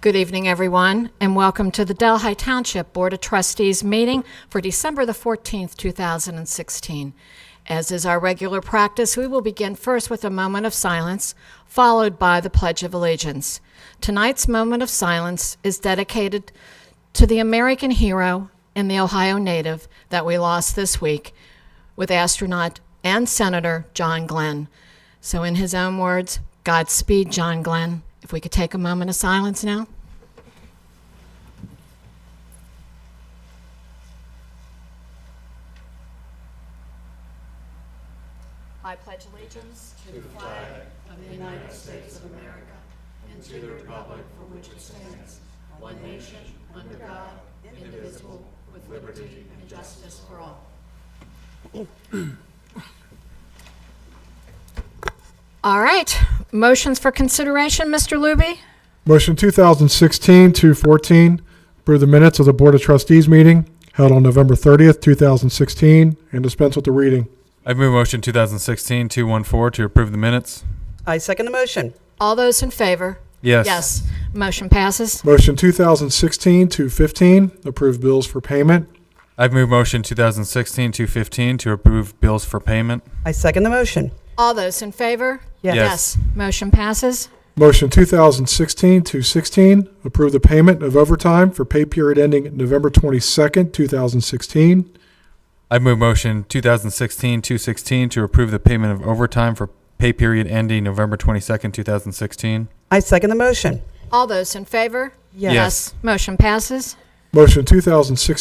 Good evening, everyone, and welcome to the Delhi Township Board of Trustees meeting for December the 14th, 2016. As is our regular practice, we will begin first with a moment of silence, followed by the Pledge of Allegiance. Tonight's moment of silence is dedicated to the American hero and the Ohio native that we lost this week with astronaut and Senator John Glenn. So, in his own words, Godspeed, John Glenn. If we could take a moment of silence now. I pledge allegiance to the flag of the United States of America and to the republic for which it stands, one nation, under God, indivisible, with liberty and justice for all. All right, motions for consideration, Mr. Luby? Motion 2016-214, approve the minutes of the Board of Trustees meeting held on November 30th, 2016, and dispense with the reading. I've moved motion 2016-214 to approve the minutes. I second the motion. All those in favor? Yes. Yes, motion passes. Motion 2016-215, approve bills for payment. I've moved motion 2016-215 to approve bills for payment. I second the motion. All those in favor? Yes. Yes. motion passes. Motion 2016-216, approve the payment of overtime for pay period ending November 22nd, 2016. I've moved motion 2016-216 to approve the payment of overtime for pay period ending November 22nd, 2016. I second the motion. All those in favor? Yes. Yes. Motion passes. Motion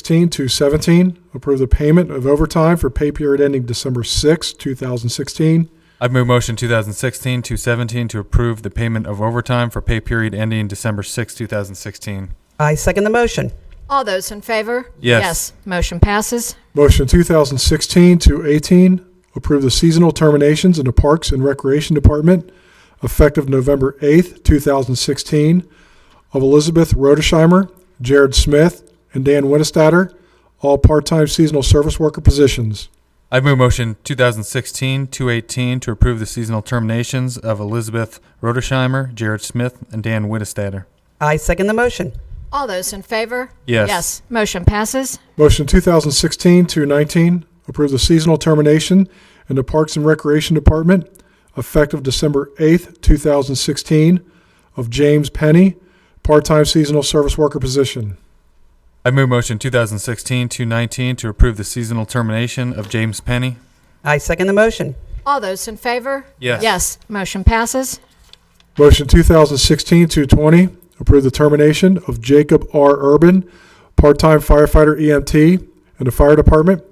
2016-217, approve the payment of overtime for pay period ending December 6th, 2016. I've moved motion 2016-217 to approve the payment of overtime for pay period ending December 6, 2016. I second the motion. All those in favor? Yes. motion passes. Motion 2016 to 18, approve the seasonal terminations in the Parks and Recreation Department effective November 8th, 2016 of Elizabeth Rodesheimer, Jared Smith, and Dan Winnestatter, all part-time seasonal service worker positions. I've moved motion 2016-218 to approve the seasonal terminations of Elizabeth Rodesheimer, Jared Smith, and Dan Wittestadter. I second the motion. All those in favor? Yes. Yes, motion passes. Motion 2016 to 19, approve the seasonal termination in the Parks and Recreation Department effective December 8th, 2016 of James Penny, part-time seasonal service worker position. I move motion 2016-219 to approve the seasonal termination of James Penny. I second the motion. All those in favor? Yes. Yes, motion passes. Motion 2016-220, approve the termination of Jacob R. Urban, part-time firefighter EMT in the Fire Department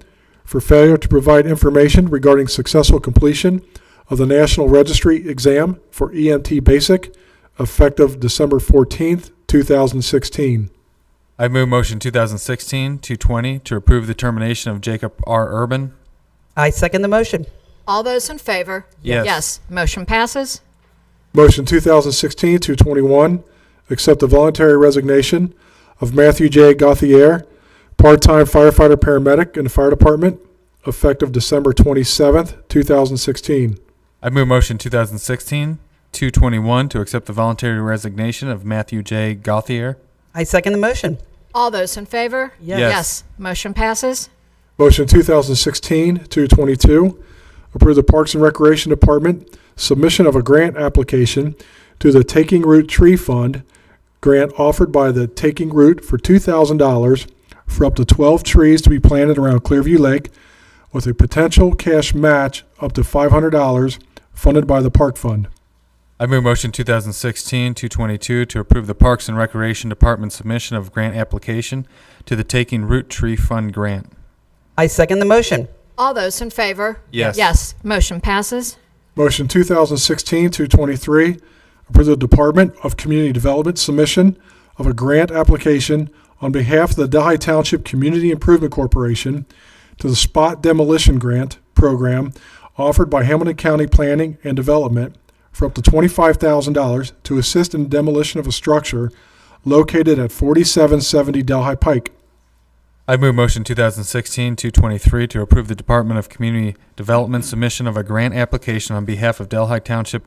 for failure to provide information regarding successful completion of the National Registry Exam for EMT Basic, effective December 14th, 2016. I move motion 2016-220 to approve the termination of Jacob R. Urban. I second the motion. All those in favor? Yes. Yes, motion passes. Motion 2016-221, accept the voluntary resignation of Matthew J. Gauthier, part-time firefighter/paramedic in the Fire Department, effective December 27th, 2016. I move motion 2016-221 to accept the voluntary resignation of Matthew J. Gauthier. I second the motion. All those in favor? Yes. Yes. motion passes. Motion 2016-222, approve the Parks and Recreation Department submission of a grant application to the Taking Root Tree Fund, grant offered by the Taking Root for $2,000 for up to 12 trees to be planted around Clearview Lake with a potential cash match up to $500 funded by the Park Fund. I move motion 2016-222 to approve the Parks and Recreation Department submission of grant application to the Taking Root Tree Fund grant. I second the motion. All those in favor? Yes. Yes, motion passes. Motion 2016-223, approve the Department of Community Development submission of a grant application on behalf of the Delhi Township Community Improvement Corporation to the Spot Demolition Grant Program offered by Hamilton County Planning and Development for up to $25,000 to assist in demolition of a structure located at 4770 Delhi Pike. I move motion 2016-223 to approve the Department of Community Development submission of a grant application on behalf of Delhi Township